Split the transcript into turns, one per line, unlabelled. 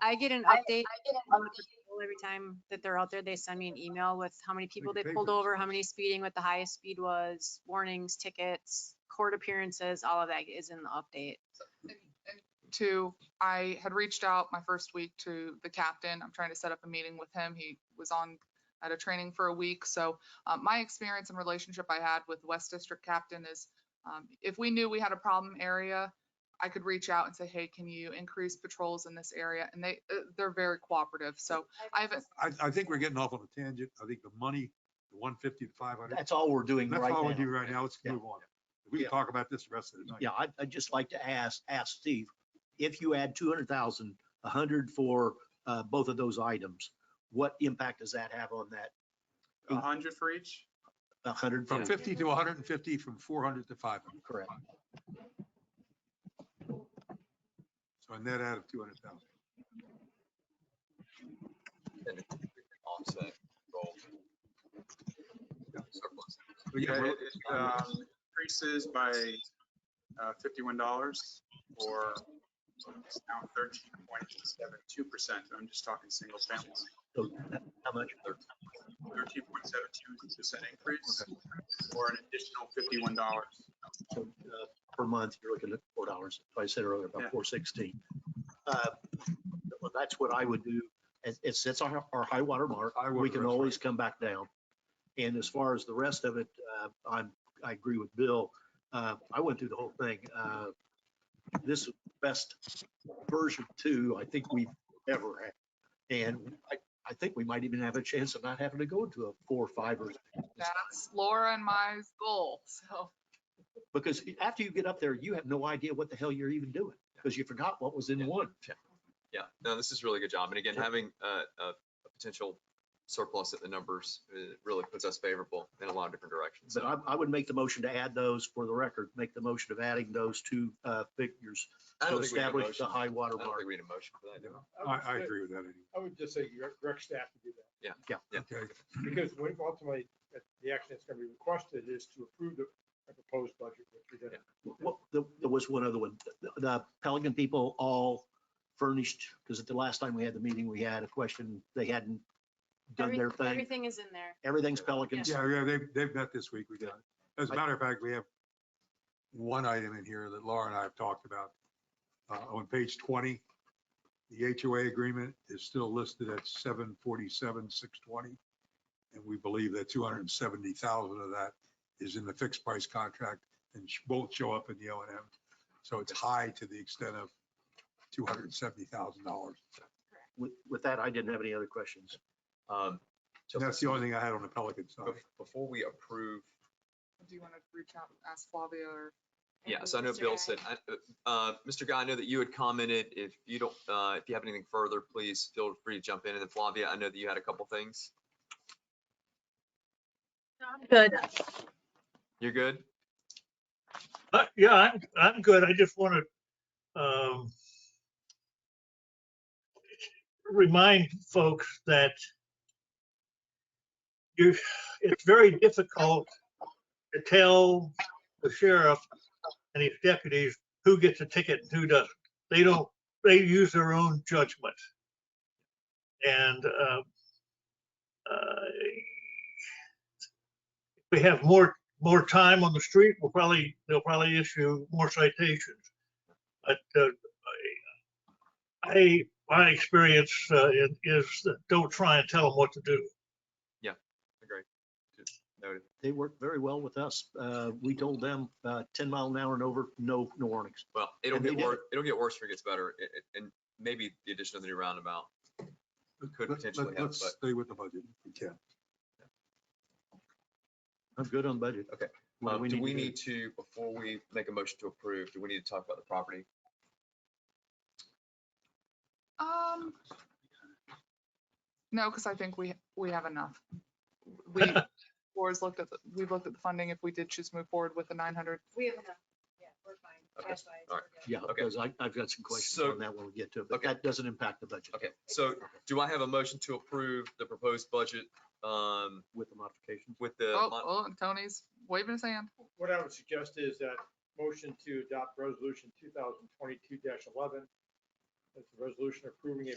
I get an
I-
update on the people every time that they're out there. They send me an email with how many people
Like
they
a
pulled
paper.
over, how many speeding, what the highest speed was, warnings, tickets, court appearances, all of that is in the update.
to, I had reached out my first week to the captain. I'm trying to set up a meeting with him. He was on at a training for a week. So uh, my experience and relationship I had with West District Captain is um, if we knew we had a problem area, I could reach out and say, hey, can you increase patrols in this area? And they, uh, they're very cooperative. So I haven't,
I, I think we're getting off on a tangent. I think the money, the one fifty to five hundred,
That's all we're doing
that's
right
all we
now.
do right now. Let's
Yeah.
move on. We
Yeah.
can talk about this the rest of the night.
Yeah, I, I'd just like to ask, ask Steve, if you add two hundred thousand, a hundred for, uh, both of those items, what impact does that have on that,
Oh.
A hundred for each?
a hundred?
From fifty to hundred and fifty, from four hundred to five hundred.
Correct.
So a net out of two hundred thousand.
offset goal. Surplus.
Yeah, it it, um, increases by uh, fifty-one dollars or it's now thirteen point seven two percent. I'm just talking single family.
So How much?
Thirteen point seven two percent increase or an additional fifty-one dollars.
So, uh, Per month, you're looking at four dollars, I said earlier,
Yeah.
about four sixteen. Uh, Well, that's what I would do, it, it sets our, our high water mark,
High water,
we can
that's right.
always come back down. And as far as the rest of it, uh, I'm, I agree with Bill, uh, I went through the whole thing, uh, this is best version two, I think we've ever had. And I, I think we might even have a chance of not having to go to a four, five or
that's Laura and my goal. So
Because after you get up there, you have no idea what the hell you're even doing because you forgot what was in one.
Yeah, no, this is really good job. And again,
Yeah.
having uh, a, a potential surplus at the numbers uh, really puts us favorable in a lot of different directions.
But
So
I, I would make the motion to add those for the record, make the motion of adding those two uh, figures
I
to
don't think we need a
establish the
motion.
high
I
water
don't
mark.
think we need a motion for that. do we?
I, I agree with that. anyway.
I would just say direct- direct staff to do that,
Yeah.
Okay,
because when ultimately, uh, the action that's gonna be requested is to approve the the proposed budget. that's presented.
Well, there there was one other one. The- The Pelican people all furnished, because at the last time we had the meeting, we had a question, they hadn't done their
Everyth-
thing.
Everything is in there.
Everything's Pelicans.
yeah, yeah, they've, they've met this week. We got, it. as a matter of fact, we have one item in here that Laura and I have talked about. Uh, on page twenty, the HOA agreement is still listed at seven forty-seven, six twenty. And we believe that two hundred and seventy thousand of that is in the fixed price contract and sh- won't show up in the O and M. So it's high to the extent of two hundred and seventy thousand dollars.
With, with that, I didn't have any other questions.
Um,
And that's the only thing I had on the Pelican side.
bef- Before we approve,
do you want to reach out and ask Flavia or?
yeah, so I know
Mr.
Bill
Guy.
said, I- uh, Mr. Guy, I know that you had commented, if you don't, uh, if you have anything further, please feel free to jump in. And then Flavia, I know that you had a couple things.
Good.
You're good?
Uh, Yeah, I'm, I'm good. I just want to, um, remind folks that you, it's very difficult to tell the sheriff and his deputies who gets a ticket and who doesn't. They don't, they use their own judgment. And, uh, uh, if we have more more time on the street, we'll probably, they'll probably issue more citations. But uh, I, my experience uh, is- is that don't try and tell them what to do.
Agree. Noted.
They worked very well with us. Uh, We told them uh, 10 mile an hour and over, no, no warnings.
Well, it'll
And they
get
did
worse, it'll get worse if it gets better, i- i- and maybe the addition of the new roundabout could
Let- let-
potentially have,
Let's
but
stay with the budget if we can.
I'm good on budget.
Okay.
What
um, do
to
we
do?
need to, before we make a motion to approve, do we need to talk about the property?
Um, no, because I think we, we have enough. We, Laura's looked at, the we've looked at the funding if we did choose to move forward with the nine hundred.
We have enough. Yeah, we're fine.
Okay.
Cash wise, we're
All right.
good.
Yeah,
Okay.
because I, I've got some questions
So-
on that when we get to it, but
Okay.
that doesn't impact the budget
Okay, so do I have a motion to approve the proposed budget, um,
with the modifications.
with the?
Oh,
mon-
oh, and Tony's waving his hand.
What I would suggest is that motion to adopt resolution two thousand twenty-two eleven. That's a resolution approving a